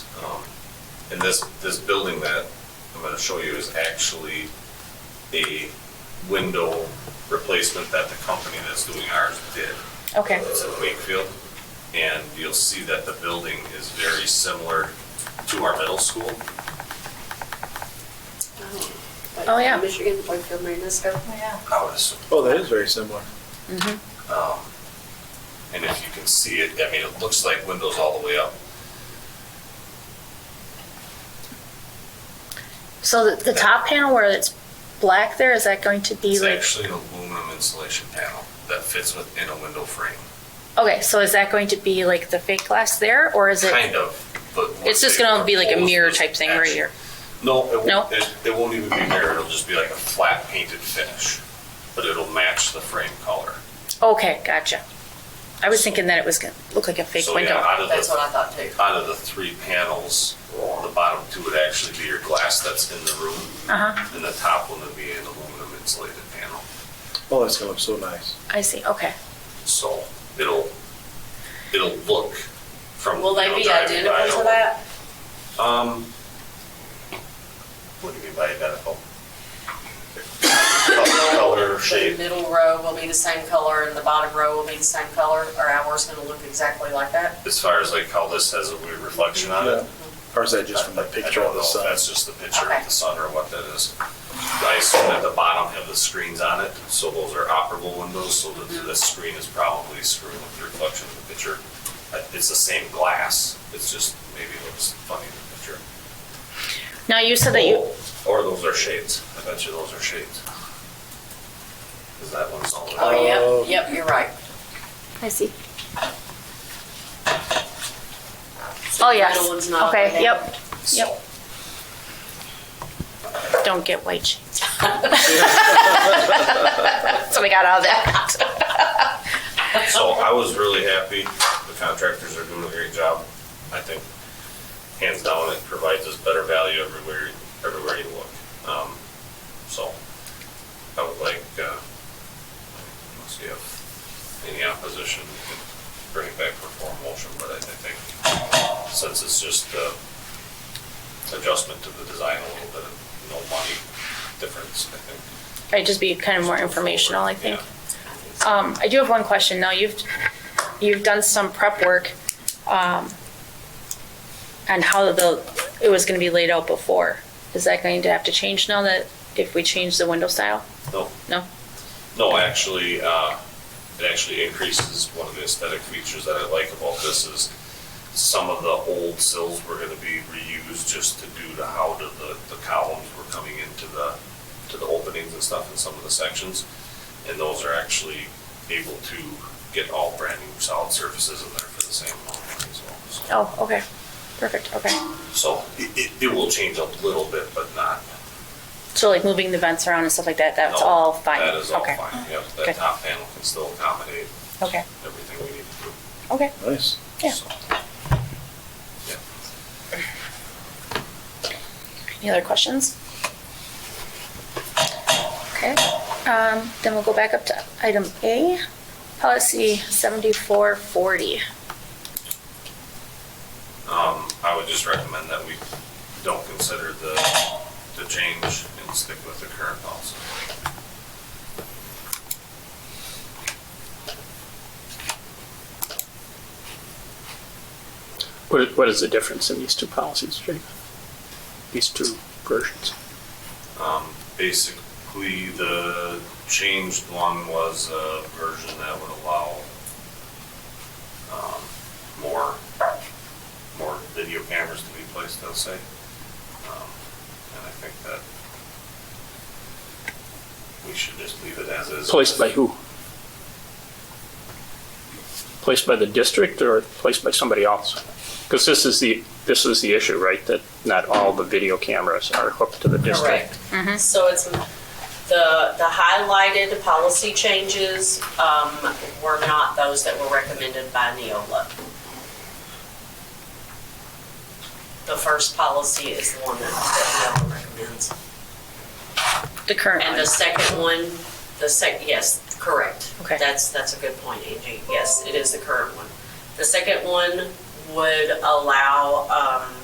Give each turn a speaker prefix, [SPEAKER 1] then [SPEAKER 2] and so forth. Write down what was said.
[SPEAKER 1] Um, And this, this building that I'm gonna show you is actually a window replacement that the company that's doing ours did.
[SPEAKER 2] Okay,
[SPEAKER 1] It's in Wakefield, and you'll see that the building is very similar to our middle school.
[SPEAKER 3] Like
[SPEAKER 2] Oh, yeah.
[SPEAKER 3] Michigan, Wakefield, Marinesco.
[SPEAKER 1] I would assume.
[SPEAKER 4] Oh, that is very similar.
[SPEAKER 1] Um, And if you can see it, I mean, it looks like windows all the way up.
[SPEAKER 2] so the, the top panel where it's black there, is that going to be
[SPEAKER 1] It's
[SPEAKER 2] like,
[SPEAKER 1] actually an aluminum insulation panel that fits within a window frame.
[SPEAKER 2] okay, so is that going to be like the fake glass there, or is it?
[SPEAKER 1] Kind of, but. what
[SPEAKER 2] It's just
[SPEAKER 1] they
[SPEAKER 2] gonna be like a
[SPEAKER 1] proposed
[SPEAKER 2] mirror
[SPEAKER 1] was
[SPEAKER 2] type thing right
[SPEAKER 1] actually-
[SPEAKER 2] here.
[SPEAKER 1] No, it
[SPEAKER 2] No?
[SPEAKER 1] won't, it, it won't even be mirror, it'll just be like a flat painted finish, but it'll match the frame color.
[SPEAKER 2] Okay, gotcha. I was thinking that it was gonna look like a fake
[SPEAKER 1] So, yeah,
[SPEAKER 2] window.
[SPEAKER 1] out of the-
[SPEAKER 5] That's what I thought too.
[SPEAKER 1] out of the three panels, the bottom two would actually be your glass that's in the room,
[SPEAKER 2] Uh-huh,
[SPEAKER 1] and the top one would be an aluminum insulated panel.
[SPEAKER 4] Oh, that's gonna look so nice.
[SPEAKER 2] I see, okay.
[SPEAKER 1] So it'll, it'll look from.
[SPEAKER 5] Will they
[SPEAKER 1] you know,
[SPEAKER 5] be
[SPEAKER 1] driving by,
[SPEAKER 5] identical to
[SPEAKER 1] it'll-
[SPEAKER 5] that?
[SPEAKER 1] Um, what do you mean by identical? Color,
[SPEAKER 5] The
[SPEAKER 1] shape,
[SPEAKER 5] middle row will be the same color and the bottom row will be the same color? Are ours gonna look exactly like that?
[SPEAKER 1] as far as like how this has a weird reflection on it.
[SPEAKER 4] Or is that just from the
[SPEAKER 1] I- I
[SPEAKER 4] picture
[SPEAKER 1] don't
[SPEAKER 4] of the
[SPEAKER 1] know if
[SPEAKER 4] sun?
[SPEAKER 1] That's just the picture
[SPEAKER 5] Okay.
[SPEAKER 1] of the sun or what that is. I assume at the bottom have the screens on it, so those are operable windows, so the, the screen is probably screwing with the reflection of the picture. Uh, It's the same glass, it's just maybe it looks funny in the picture.
[SPEAKER 2] Now, you said that you,
[SPEAKER 1] Oh, Or those are shades, I bet you those are shades. Cause that one's all.
[SPEAKER 5] Oh,
[SPEAKER 4] Oh.
[SPEAKER 5] yep, yep, you're right.
[SPEAKER 2] I see.
[SPEAKER 5] So
[SPEAKER 2] Oh,
[SPEAKER 5] the
[SPEAKER 2] yes,
[SPEAKER 5] middle one's not
[SPEAKER 2] okay,
[SPEAKER 5] updated.
[SPEAKER 2] yep,
[SPEAKER 1] So,
[SPEAKER 2] yep. don't get white sheets. So we got all that.
[SPEAKER 1] So I was really happy. The contractors are doing a great job. I think hands down, it provides us better value everywhere, everywhere you look. Um, so I would like, uh, let's see if any opposition we can bring it back for formal motion, but I, I think since it's just, uh, adjustment to the design a little bit, no money difference, I think.
[SPEAKER 2] Right, just be kind of more informational, I think.
[SPEAKER 1] Yeah.
[SPEAKER 2] Um, I do have one question. Now, you've, you've done some prep work, um, on how the, it was gonna be laid out before. Is that going to have to change now that, if we change the window style?
[SPEAKER 1] No,
[SPEAKER 2] No?
[SPEAKER 1] No, actually, uh, it actually increases one of the aesthetic features that I like about this is some of the old sills were gonna be reused just to do to how the, the columns were coming into the, to the openings and stuff in some of the sections. And those are actually able to get all brand new solid surfaces in there for the same amount of money as well. so.
[SPEAKER 2] Oh, okay. Perfect, okay.
[SPEAKER 1] So it, it, it will change a little bit, but not.
[SPEAKER 2] So like moving the vents around and stuff like that, that's
[SPEAKER 1] no,
[SPEAKER 2] all fine?
[SPEAKER 1] That is all
[SPEAKER 2] Okay,
[SPEAKER 1] fine, yep.
[SPEAKER 2] Good.
[SPEAKER 1] That top panel can still accommodate
[SPEAKER 2] Okay,
[SPEAKER 1] everything we need to do.
[SPEAKER 2] okay.
[SPEAKER 4] Nice.
[SPEAKER 2] Yeah.
[SPEAKER 1] So,
[SPEAKER 2] Any other questions? Okay, um, then we'll go back up to item A, policy seventy-four forty.
[SPEAKER 1] Um, I would just recommend that we don't consider the, the change and stick with the current policy.
[SPEAKER 6] What, what is the difference in these two policies, Jake? These two versions?
[SPEAKER 1] Um, basically, the changed one was a version that would allow, um, more, more video cameras to be placed, I'll say. Um, And I think that we should just leave it as is.
[SPEAKER 6] Placed by who? Placed by the district or placed by somebody else? Because this is the, this is the issue, right? That not all the video cameras are hooked to the district.
[SPEAKER 5] Correct.
[SPEAKER 2] Mm-hmm.
[SPEAKER 5] So it's, the, the highlighted policy changes, um, were not those that were recommended by Neola. The first policy is the one that, that Neola recommends.
[SPEAKER 2] The current
[SPEAKER 5] And
[SPEAKER 2] one.
[SPEAKER 5] the second one, the sec, yes, correct.
[SPEAKER 2] Okay.
[SPEAKER 5] That's, that's a good point, Angie. Yes, it is the current one. The second one would allow, um,